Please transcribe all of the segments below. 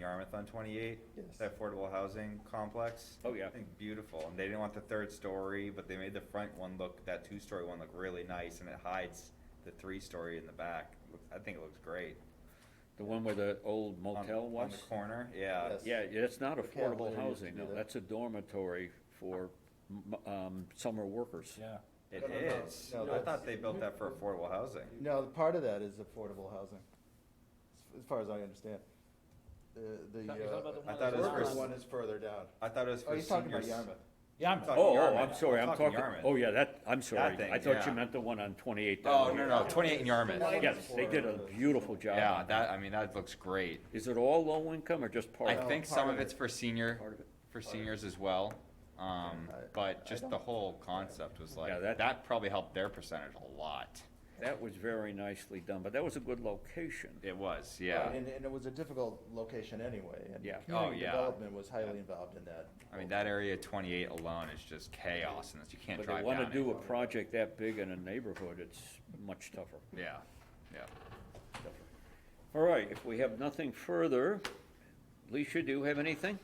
Yarmouth on twenty-eight, Yes. that affordable housing complex. Oh, yeah. I think beautiful, and they didn't want the third story, but they made the front one look, that two-story one look really nice, and it hides the three-story in the back. Looks- I think it looks great. The one where the old On- motel On was? the corner, yeah. Yes. Yeah, yeah, that's not The Campbell affordable used to housing, do no, that. that's a dormitory for, m- um, summer workers. Yeah. It No, no, no. is. No, I that's- thought they built that for affordable housing. No, part of that is affordable housing, as- as far as I understand. The, the. You're talking uh, about the I thought it was worker for- One is further down. I thought it was Oh, for he's talking about seniors. Yarmouth. Yeah, I'm I'm, talking Oh, oh, Yarmouth. I'm sorry, I'm talking, Yarmouth. oh, yeah, that, I'm sorry, thing, I thought yeah. you meant the one on twenty-eight Oh, no, down here. no, twenty-eight in Yarmouth. Like- Yes, they did a beautiful job. Yeah, on that, I mean, that looks great. Is it all low income or just part I of it? think part some of of it's it. for senior, Part of it. for seniors as well. Um, I- but I just the don't- whole concept was Yeah, like, that- that probably helped their percentage a lot. That was very nicely done, but that was a good location. It was, Right, yeah. And, and it was a difficult location anyway, and. Yeah. Oh, community yeah. Development was highly involved in that. I mean, that area twenty-eight alone is just chaos and it's- you can't But they drive wanna down do it. a project that big in a neighborhood, it's much tougher. Yeah, yeah. All right, if we have nothing further, Alicia, do you have anything?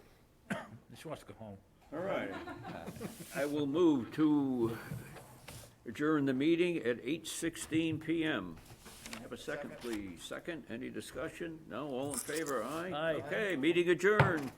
she wants to go home. All right. I will move to adjourn the meeting at eight sixteen PM. Can I Have a second, please. Second, any discussion? No, all in favor, aye? Aye. Okay, meeting adjourned.